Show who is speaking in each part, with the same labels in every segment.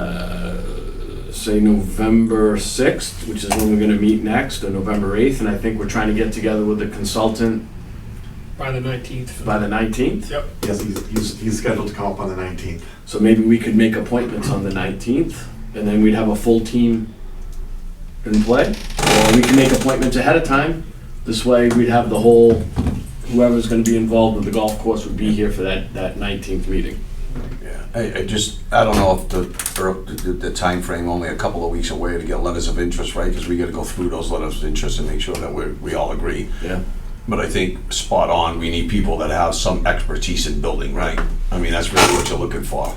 Speaker 1: uh, say November 6th, which is when we're going to meet next, or November 8th, and I think we're trying to get together with the consultant
Speaker 2: by the nineteenth.
Speaker 1: by the 19th.
Speaker 2: Yep,
Speaker 3: Yes, he's, he's, he's scheduled to come up on the nineteenth.
Speaker 1: So maybe we could make appointments on the 19th, and then we'd have a full team in play. Or we can make appointments ahead of time. This way, we'd have the whole, whoever's going to be involved with the golf course would be here for that, that 19th meeting.
Speaker 4: Yeah, I, I just, I don't know if the, or the, the- the timeframe, only a couple of weeks away to get letters of interest, right? Because we gotta go through those letters of interest and make sure that we're, we all agree.
Speaker 1: Yeah.
Speaker 4: But I think spot on, we need people that have some expertise in building, right? I mean, that's really what you're looking for.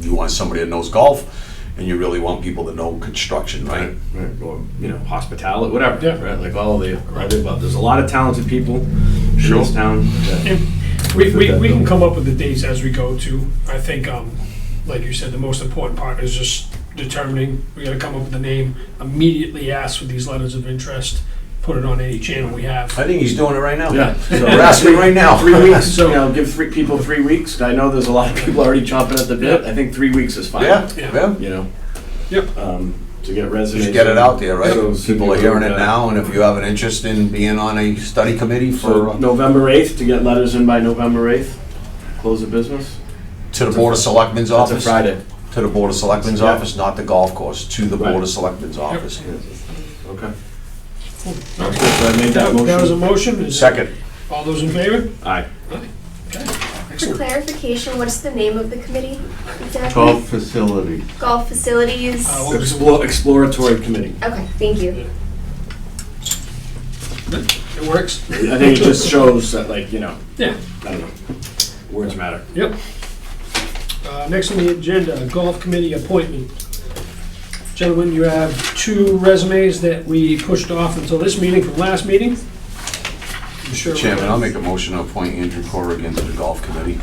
Speaker 4: You want somebody that knows golf and you really want people that know construction, right?
Speaker 1: Right, or, you know, hospitality, whatever.
Speaker 2: Yeah.
Speaker 1: Right, like all the other above. There's a lot of talented people in this town. that-
Speaker 2: we, we, we can come up with the dates as we go too. I think, um, like you said, the most important part is just determining, we gotta come up with a name, immediately ask for these letters of interest, put it on any channel we have.
Speaker 4: I think he's doing it right now.
Speaker 1: Yeah. so-
Speaker 4: We're asking right now.
Speaker 1: Three weeks, so, you know, give three people three weeks. I know there's a lot of people already chomping at the bit. I think three weeks is fine.
Speaker 4: Yeah,
Speaker 2: Yeah.
Speaker 4: yeah.
Speaker 1: You know?
Speaker 2: Yep.
Speaker 1: Um, to get resumes.
Speaker 4: Just get it out there, right?
Speaker 1: So- so
Speaker 4: People are
Speaker 1: people uh,
Speaker 4: hearing it
Speaker 1: know.
Speaker 4: now, and if you have an interest in being on a study committee for,
Speaker 1: So
Speaker 4: uh,
Speaker 1: November eighth, to get letters in by November eighth, close the business.
Speaker 4: to the Board of Selectmen's
Speaker 1: That's a
Speaker 4: office.
Speaker 1: Friday.
Speaker 4: To the Board of Selectmen's
Speaker 1: Yeah.
Speaker 4: office, not the golf course, to the Board
Speaker 1: Right.
Speaker 4: of Selectmen's office.
Speaker 1: Okay. Sounds good. So I made that
Speaker 2: That was a
Speaker 1: motion.
Speaker 2: motion. Is it-
Speaker 4: Second,
Speaker 2: All those in favor?
Speaker 1: Aye.
Speaker 5: For clarification, what's the name of the committee exactly?
Speaker 6: Golf facility.
Speaker 5: Golf facilities?
Speaker 2: Uh, we'll-
Speaker 1: Explore, exploratory committee.
Speaker 5: Okay, thank you.
Speaker 2: It works?
Speaker 1: I think it just shows that like, you know,
Speaker 2: Yeah.
Speaker 1: I don't know, words matter.
Speaker 2: Yep. Uh, Next on the agenda, golf committee appointment. Gentlemen, you have two resumes that we pushed off until this meeting from last meeting. I'm sure.
Speaker 4: Chairman, I'll make a motion to appoint Andrew Corrigan to the Golf Committee.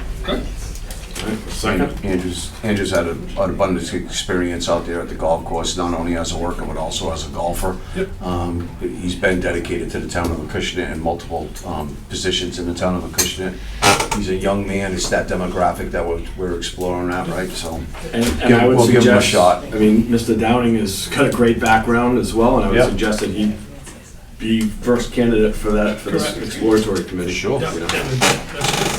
Speaker 1: Second.
Speaker 4: Andrew's, Andrew's had a- an abundance of experience out there at the golf course, not only as a worker, but also as a golfer.
Speaker 2: Yep.
Speaker 4: Um, He's been dedicated to the town of Acushnet in multiple um, positions in the town of Acushnet. He's a young man, it's that demographic that we're we're exploring that, right? So,
Speaker 1: And, and
Speaker 4: Give-
Speaker 1: I would
Speaker 4: we'll give
Speaker 1: suggest,
Speaker 4: him a shot.
Speaker 1: I mean, Mr. Downing has got a great background as well, and I would
Speaker 4: Yeah.
Speaker 1: suggest that he be first candidate for that for this
Speaker 2: Correct.
Speaker 1: exploratory committee.
Speaker 4: Sure.
Speaker 1: You know.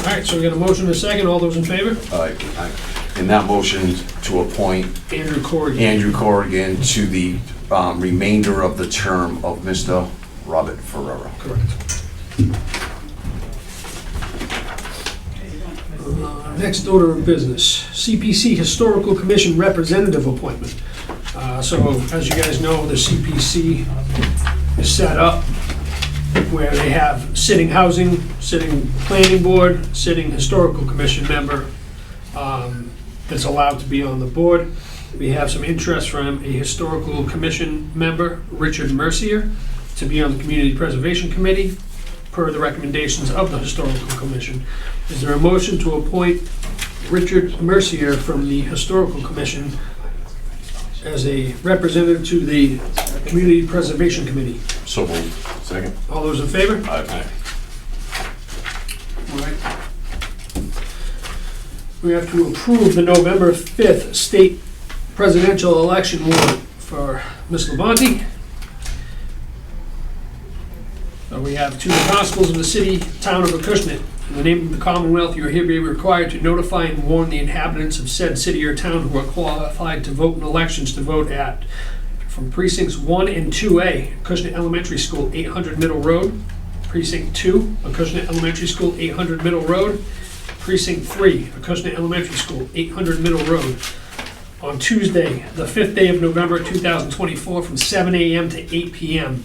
Speaker 2: All right, so we got a motion and a second. All those in favor?
Speaker 4: uh, I- in that motion to appoint
Speaker 2: Andrew Corrigan.
Speaker 4: Andrew Corrigan to the um, remainder of the term of Mr. Robert Ferrera.
Speaker 2: Correct. Uh, Next order of business, CPC Historical Commission Representative Appointment. Uh, So as you guys know, the CPC is set up where they have sitting housing, sitting planning board, sitting historical commission member um, that's allowed to be on the board. We have some interest from a historical commission member, Richard Mercier, to be on the Community Preservation Committee per the recommendations of the Historical Commission. Is there a motion to appoint Richard Mercier from the Historical Commission as a representative to the Community Preservation Committee?
Speaker 4: So moved.
Speaker 1: Second.
Speaker 2: All those in favor?
Speaker 4: Aye.
Speaker 2: All right. We have to approve the November 5th state presidential election warrant for Ms. Levanti. So we have two constables of the city, town of Acushnet. In the name of the Commonwealth, you are hereby required to notify and warn the inhabitants of said city or town who are qualified to vote in elections to vote at from precincts 1 and 2A, Acushnet Elementary School, 800 Middle Road, Precinct 2, Acushnet Elementary School, 800 Middle Road. Precinct 3, Acushnet Elementary School, 800 Middle Road. On Tuesday, the 5th day of November 2024, from 7 a.m. to 8 p.m.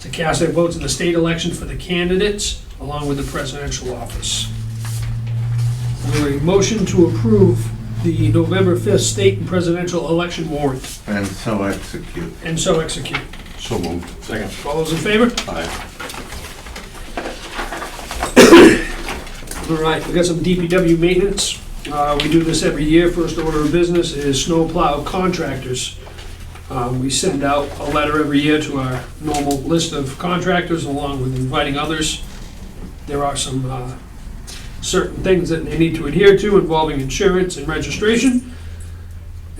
Speaker 2: to cast their votes in the state election for the candidates along with the presidential office. Is there a motion to approve the November 5th state and presidential election warrant
Speaker 6: And so execute.
Speaker 2: and so execute?
Speaker 4: So moved.
Speaker 1: Second.
Speaker 2: All those in favor?
Speaker 4: Aye.
Speaker 2: All right, we got some DPW maintenance. Uh, We do this every year. First order of business is snowplow contractors. Um, We send out a letter every year to our normal list of contractors along with inviting others. There are some uh, certain things that they need to adhere to involving insurance and registration.